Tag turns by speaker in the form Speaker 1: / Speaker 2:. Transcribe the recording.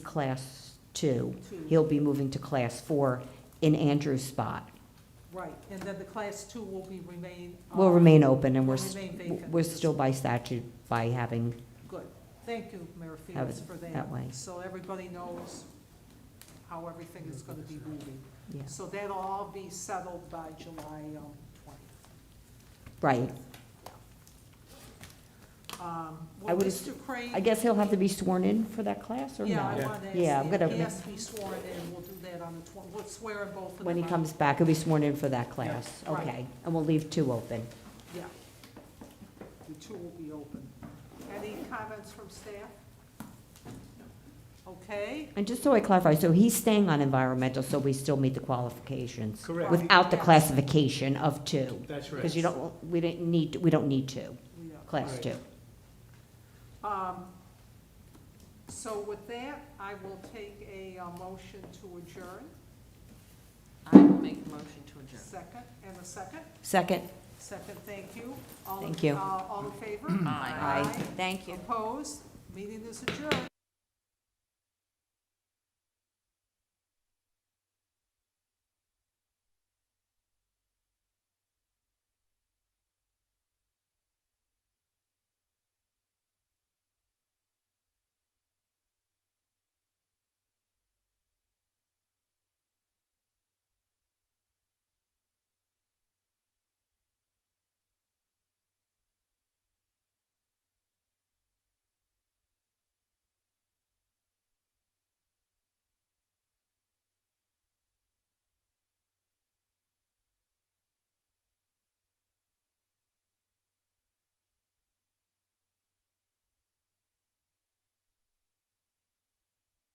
Speaker 1: class two. He'll be moving to class four in Andrew's spot.
Speaker 2: Right, and then the class two will be remain. uh,
Speaker 1: Will remain open and we're, s-
Speaker 2: Remain vacant.
Speaker 1: we're still by statute by having,
Speaker 2: Good. Thank you, Mayor
Speaker 1: Have
Speaker 2: Felix,
Speaker 1: it
Speaker 2: for that.
Speaker 1: that way.
Speaker 2: So everybody knows how everything is going to be moving.
Speaker 1: yeah,
Speaker 2: So that'll all be settled by July um, 20th.
Speaker 1: right.
Speaker 2: Um,
Speaker 1: I
Speaker 2: Will
Speaker 1: would
Speaker 2: Mr. Crane?
Speaker 1: I guess he'll have to be sworn in for that class or
Speaker 2: Yeah, I
Speaker 1: no?
Speaker 2: want to ask.
Speaker 1: Yeah, I'm
Speaker 2: him.
Speaker 1: gonna-
Speaker 2: He has to be sworn in, we'll do that on the 20th. We'll swear in both of them.
Speaker 1: When he
Speaker 2: on-
Speaker 1: comes back, he'll be sworn in for that class.
Speaker 2: Right.
Speaker 1: Okay, and we'll leave two open.
Speaker 2: Yeah. The two will be open. Any comments from staff? Okay,
Speaker 1: And just so I clarify, so he's staying on environmental, so we still meet the qualifications?
Speaker 2: Correct.
Speaker 1: Without the
Speaker 2: Yes.
Speaker 1: classification of two?
Speaker 3: That's
Speaker 1: Because you don't, we didn't need, we don't need two,
Speaker 2: we are.
Speaker 1: class
Speaker 3: Right.
Speaker 1: two.
Speaker 2: Um, So with that, I will take a uh, motion to adjourn,
Speaker 4: I will make the motion to adjourn.
Speaker 2: second, and a second.
Speaker 1: Second?
Speaker 2: Second, thank you. All in-
Speaker 1: Thank you.
Speaker 2: uh, All in favor?
Speaker 4: Aye.
Speaker 1: Thank you.
Speaker 2: Opposed? Meeting is adjourned.